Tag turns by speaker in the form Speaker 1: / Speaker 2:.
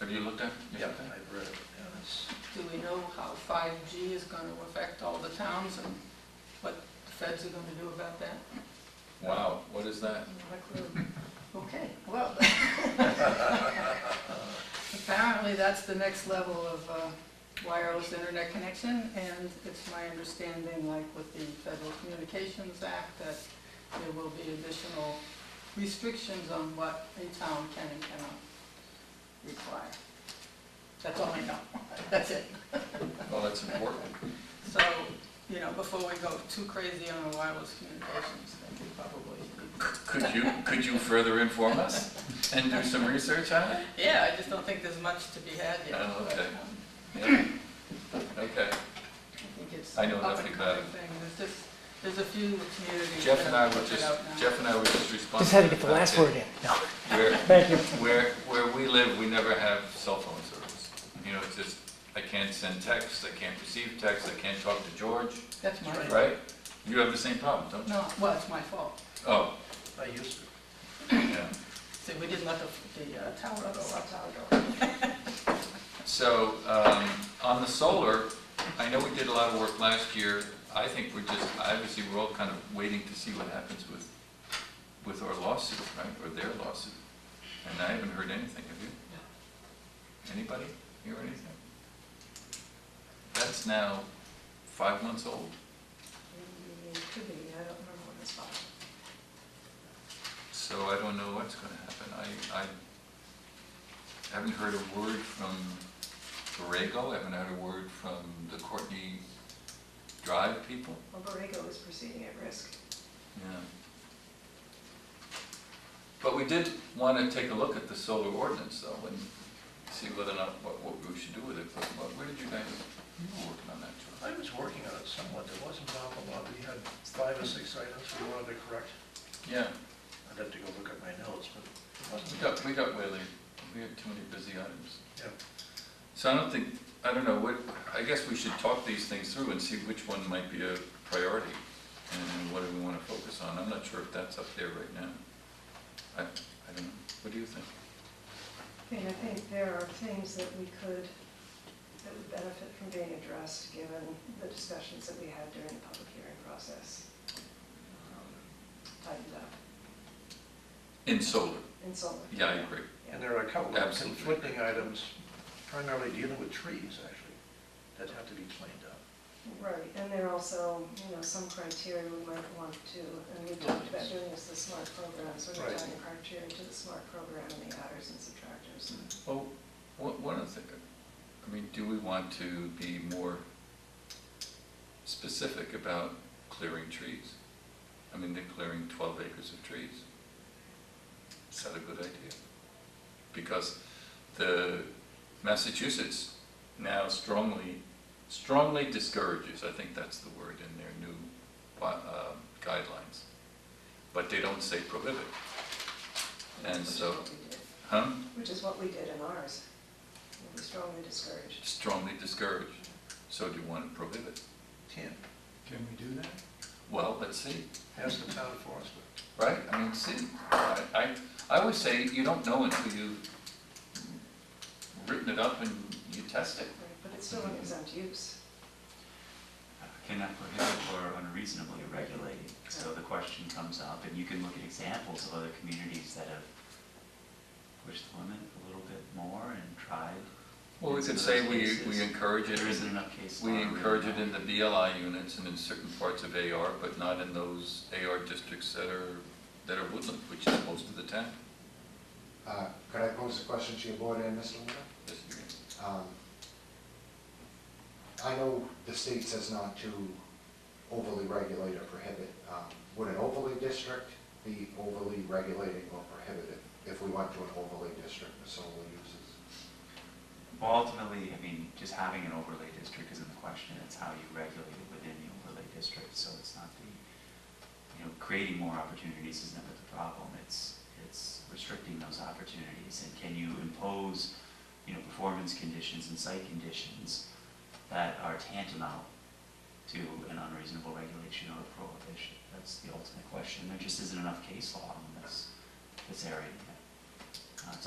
Speaker 1: Have you looked at? you
Speaker 2: Yep,
Speaker 1: looked at it?
Speaker 2: I've read it, yeah, it's,
Speaker 3: Do we know how 5G is going to affect all the towns and what the feds are going to do about that?
Speaker 1: Wow, what is that?
Speaker 3: Not a clue. Okay, well. Apparently, that's the next level of uh, wireless internet connection, and it's my understanding, like with the Federal Communications Act, that there will be additional restrictions on what a town can and cannot require. That's all I know. That's it.
Speaker 1: Well, that's important.
Speaker 3: So, you know, before we go too crazy on the wireless communications, I think probably need to
Speaker 1: Could you, could you further inform us and do some research on it?
Speaker 3: Yeah, I just don't think there's much to be had yet.
Speaker 1: Oh,
Speaker 3: but,
Speaker 1: okay.
Speaker 3: um,
Speaker 1: Yeah. Okay.
Speaker 3: I think it's
Speaker 1: I know
Speaker 3: an up
Speaker 1: nothing
Speaker 3: and
Speaker 1: about
Speaker 3: coming thing. There's just, there's a few communities.
Speaker 1: Jeff and I
Speaker 3: that
Speaker 1: were
Speaker 3: have
Speaker 1: just,
Speaker 3: it out now.
Speaker 1: Jeff and I were just responsible.
Speaker 4: Just had to get the last word in. No,
Speaker 1: Where,
Speaker 4: thank you.
Speaker 1: where, where we live, we never have cell phone service. You know, it's just, I can't send texts, I can't receive texts, I can't talk to George,
Speaker 3: That's my fault.
Speaker 1: right? You have the same problem, don't you?
Speaker 3: No, well, it's my fault.
Speaker 1: Oh,
Speaker 2: I used to,
Speaker 1: yeah.
Speaker 3: See, we didn't let the, the uh, tower go, our tower go.
Speaker 1: So, um, on the solar, I know we did a lot of work last year. I think we're just, obviously, we're all kind of waiting to see what happens with, with our lawsuit, right, or their lawsuit. And I haven't heard anything, have you? Anybody hear anything? That's now five months old.
Speaker 5: It could be, I don't remember when it's filed.
Speaker 1: So I don't know what's gonna happen. I, I haven't heard a word from Borrego, I haven't heard a word from the Courtney Drive people.
Speaker 5: Well, Borrego is proceeding at risk.
Speaker 1: Yeah. But we did wanna take a look at the solar ordinance though, and see whether or not, what, what we should do with it. But what- where did you guys, you were working on that, George?
Speaker 2: I was working on it somewhat, there wasn't an awful lot, we had five or six items we wanted to correct.
Speaker 1: Yeah,
Speaker 2: I'd have to go look at my notes, but it
Speaker 1: we
Speaker 2: wasn't,
Speaker 1: got, we got way late. We had too many busy items.
Speaker 2: yeah.
Speaker 1: So I don't think, I don't know, what, I guess we should talk these things through and see which one might be a priority and what do we want to focus on. I'm not sure if that's up there right now. I, I don't know. What do you think?
Speaker 5: I mean, I think there are things that we could, that would benefit from being addressed, given the discussions that we had during the public hearing process. Um, Tightened up
Speaker 1: In solar?
Speaker 5: in solar.
Speaker 1: Yeah, I agree.
Speaker 2: And there are a couple of
Speaker 1: Absolutely.
Speaker 2: conflicting items, primarily dealing with trees, actually, that have to be cleaned up.
Speaker 5: Right, and there are also, you know, some criteria we might want to, and we talked about doing this, the SMART program, so we're
Speaker 2: Right.
Speaker 5: tying a criteria to the SMART program and the adders and subtractors.
Speaker 1: Well, one, one of the, I mean, do we want to be more specific about clearing trees? I mean, they're clearing twelve acres of trees. Is that a good idea? Because the Massachusetts now strongly, strongly discourages, I think that's the word in their new wi- uh, guidelines. But they don't say prohibit, And
Speaker 5: Which is
Speaker 1: so-
Speaker 5: what we did.
Speaker 1: huh?
Speaker 5: Which is what we did in ours. We strongly discouraged.
Speaker 1: strongly discouraged. So do you want to prohibit?
Speaker 2: Can't,
Speaker 6: Can we do that?
Speaker 1: Well, let's see,
Speaker 2: ask the town forester.
Speaker 1: right? I mean, see, I, I I always say you don't know until you've written it up and you test it.
Speaker 5: Right, But it's still an exempt use.
Speaker 7: uh, cannot prohibit or unreasonably regulate. So the question comes up, and you can look at examples of other communities that have pushed the limit a little bit more and tried.
Speaker 1: Well, we
Speaker 7: In
Speaker 1: could
Speaker 7: some of
Speaker 1: say
Speaker 7: those
Speaker 1: we,
Speaker 7: cases,
Speaker 1: we encourage it,
Speaker 7: There isn't enough case law.
Speaker 1: we
Speaker 7: to
Speaker 1: encourage it
Speaker 7: really
Speaker 1: in
Speaker 7: know.
Speaker 1: the BLI units and in certain parts of AR, but not in those AR districts that are, that are woodland, which is most of the town.
Speaker 8: Uh, Could I pose a question to your board and Mr. Luna?
Speaker 1: Yes, you can.
Speaker 8: Um, I know the state says not to overly regulate or prohibit. Um, Would an overlay district be overly regulating or prohibitive if we went to an overlay district for solar uses?
Speaker 7: Well, ultimately, I mean, just having an overlay district isn't the question, it's how you regulate it within the overlay district, so it's not the, you know, creating more opportunities is never the problem, it's, it's restricting those opportunities, and can you impose, you know, performance conditions and site conditions that are tantamount to an unreasonable regulation or prohibition? That's the ultimate question, there just isn't enough case law in this, this area yet. Uh, it's